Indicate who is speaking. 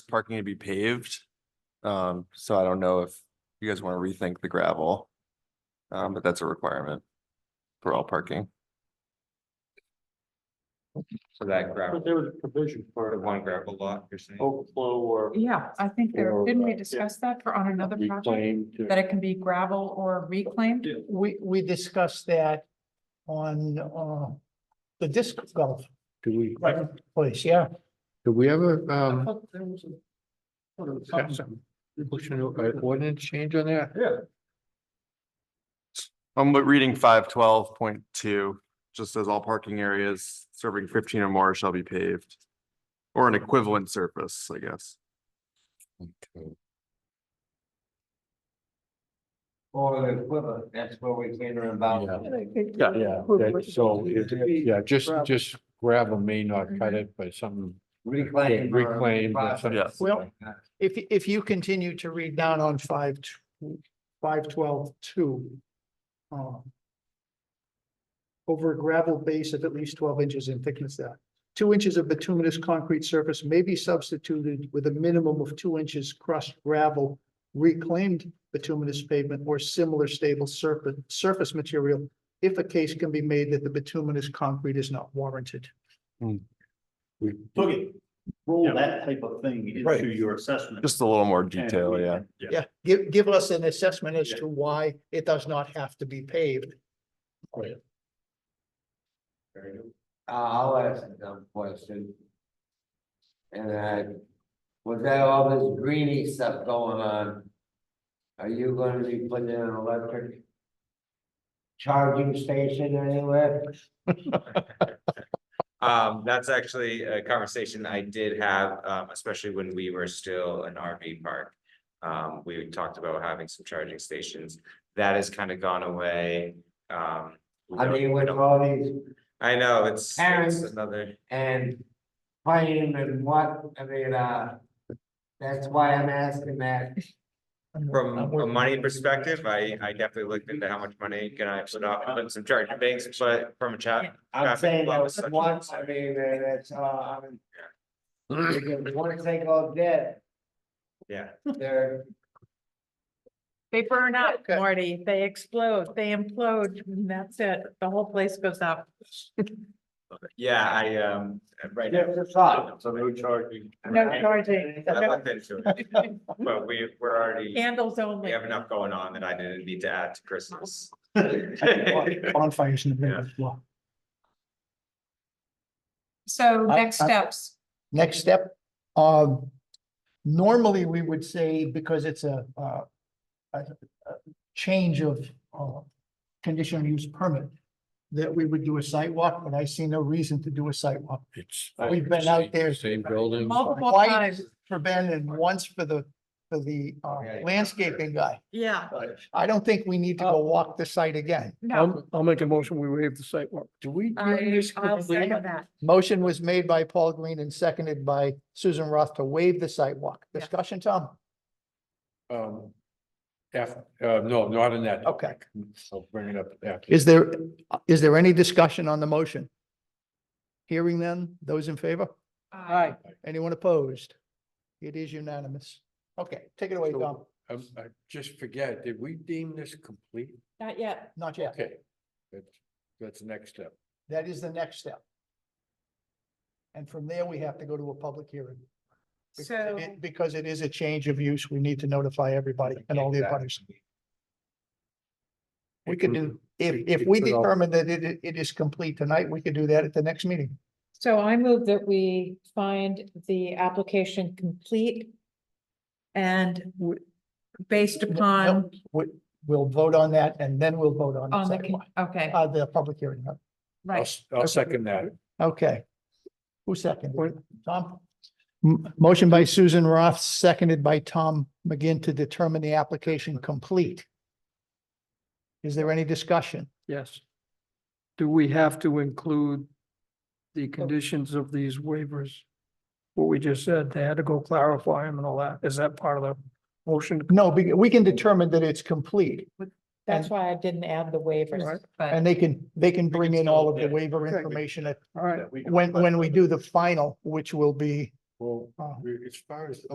Speaker 1: parking to be paved. Um, so I don't know if you guys want to rethink the gravel. Um, but that's a requirement for all parking.
Speaker 2: So that gravel,
Speaker 3: But there was a provision
Speaker 2: the
Speaker 3: for
Speaker 2: one gravel lot you're saying?
Speaker 3: overflow or
Speaker 4: Yeah, I think there,
Speaker 3: Or,
Speaker 4: didn't
Speaker 3: uh,
Speaker 4: we
Speaker 3: yeah.
Speaker 4: discuss that for on another project?
Speaker 3: reclaim
Speaker 4: That
Speaker 3: to.
Speaker 4: it can be gravel or reclaimed?
Speaker 3: Yeah.
Speaker 5: We, we discussed that on, uh, the disc golf
Speaker 6: Do we,
Speaker 5: place, yeah.
Speaker 6: do we ever, um,
Speaker 5: thought there was a-
Speaker 6: got some pushing an uh, ordinance change on that?
Speaker 1: I'm reading five twelve point two, just says all parking areas serving fifteen or more shall be paved. Or an equivalent surface, I guess.
Speaker 2: Or the equivalent, that's where we came about.
Speaker 6: Yeah, yeah, that- so, if- yeah, just, just gravel may not
Speaker 5: Mm-hmm.
Speaker 6: cut it, but something
Speaker 2: Reclaim. or
Speaker 6: reclaimed or something.
Speaker 1: Yeah.
Speaker 5: Well- If, if you continue to read down on five, tw- five twelve two. uh, Over a gravel base of at least twelve inches in thickness that. Two inches of bituminous concrete surface may be substituted with a minimum of two inches crushed gravel. Reclaimed bituminous pavement or similar stable surface, surface material. If a case can be made that the bituminous concrete is not warranted.
Speaker 3: Look, it, roll that type of thing
Speaker 6: Right.
Speaker 3: into your assessment.
Speaker 1: Just a little more
Speaker 3: and
Speaker 1: detail,
Speaker 3: we
Speaker 1: yeah.
Speaker 3: can- Yeah.
Speaker 5: Yeah, give, give us an assessment as
Speaker 3: Yeah.
Speaker 5: to why it does not have to be paved.
Speaker 2: Uh, I'll ask a dumb question. And I, with that all this greeny stuff going on, are you gonna be putting in an electric charging station anywhere?
Speaker 7: Um, that's actually a conversation I did have, um, especially when we were still an RV park. Um, we talked about having some charging stations. That has kind of gone away. Um. we
Speaker 2: I
Speaker 7: don't-
Speaker 2: mean,
Speaker 7: we
Speaker 2: with
Speaker 7: don't-
Speaker 2: all these
Speaker 7: I know, it's, it's
Speaker 2: Parents.
Speaker 7: another,
Speaker 2: and playing and what, I mean, uh, that's why I'm asking that.
Speaker 7: from a money perspective, I, I definitely looked into how much money can I put off on some charging banks, but from a chat.
Speaker 2: I'm
Speaker 7: Traffic
Speaker 2: saying
Speaker 7: flow
Speaker 2: that
Speaker 7: is such a
Speaker 2: once, I
Speaker 7: concern.
Speaker 2: mean, and it's, uh, I mean. Because once they go dead,
Speaker 7: Yeah,
Speaker 2: they're,
Speaker 4: They burn up,
Speaker 5: Okay.
Speaker 4: Marty. They explode, they implode, and that's it. The whole place goes up.
Speaker 7: yeah, I, um, right now,
Speaker 2: it's a thought.
Speaker 3: So no charging.
Speaker 4: No charging.
Speaker 7: I looked into it, but we, we're already,
Speaker 4: Candles
Speaker 7: we
Speaker 4: only.
Speaker 7: have enough going on that I didn't need to add to Christmas.
Speaker 5: Bonfires in the middle of the law.
Speaker 4: So
Speaker 5: I-
Speaker 4: next
Speaker 5: I-
Speaker 4: steps,
Speaker 5: Next step, um, normally we would say, because it's a, uh, a, a change of, uh, conditional use permit, that we would do a sidewalk, but I see no reason to do a sidewalk.
Speaker 6: It's-
Speaker 5: We've been out there-
Speaker 6: Same building.
Speaker 4: multiple
Speaker 5: Why-
Speaker 4: times.
Speaker 5: For Ben and once for the, for the, uh,
Speaker 2: Yeah.
Speaker 5: landscaping guy.
Speaker 4: Yeah,
Speaker 5: I don't think we need to
Speaker 4: Oh.
Speaker 5: go walk the site again.
Speaker 4: no,
Speaker 6: I'll make a motion, we waive the site walk. Do we?
Speaker 4: I, I'll second that.
Speaker 5: Motion was made by Paul Green and seconded by Susan Roth to waive the sidewalk.
Speaker 4: Yeah.
Speaker 5: Discussion, Tom?
Speaker 6: Um, F, uh, no, not in that.
Speaker 5: Okay.
Speaker 6: I'll bring it up after.
Speaker 5: Is there, is there any discussion on the motion? Hearing none, those in favor?
Speaker 4: Aye.
Speaker 5: Anyone opposed? It is unanimous. Okay, take it away, Tom.
Speaker 6: I, Um, I just forget, did we deem this complete?
Speaker 4: Not yet.
Speaker 5: Not yet.
Speaker 6: Okay, that's, that's the next step.
Speaker 5: That is the next step. And from there, we have to go to a public hearing. Because
Speaker 4: So,
Speaker 5: it- Because it is a change of use, we need to notify everybody and all the abutters. We could do, if, if we determine that it, it is complete tonight, we could do that at the next meeting.
Speaker 4: so I move that we find the application complete and
Speaker 5: W-
Speaker 4: based
Speaker 5: no,
Speaker 4: upon,
Speaker 5: We, we'll vote on that and then we'll vote on the
Speaker 4: on the, con-
Speaker 5: sidewalk,
Speaker 4: okay,
Speaker 5: uh, the public hearing.
Speaker 6: I'll,
Speaker 4: right.
Speaker 6: s- I'll second that.
Speaker 5: Okay. Who seconded? Tom? M- Motion by Susan Roth, seconded by Tom McGinn to determine the application complete. Is there any discussion?
Speaker 8: Yes. Do we have to include the conditions of these waivers? What we just said, they had to go clarify them and all that. Is that part of the motion?
Speaker 5: No, be- we can determine that it's complete
Speaker 4: That's why I didn't add the waivers,
Speaker 8: Right.
Speaker 4: but
Speaker 5: and they can, they can bring in all of the
Speaker 3: still-
Speaker 5: waiver
Speaker 8: Okay.
Speaker 5: information at,
Speaker 8: All right.
Speaker 3: That we can-
Speaker 5: when, when we do the final, which will be
Speaker 6: Well,
Speaker 5: Oh.
Speaker 6: as far as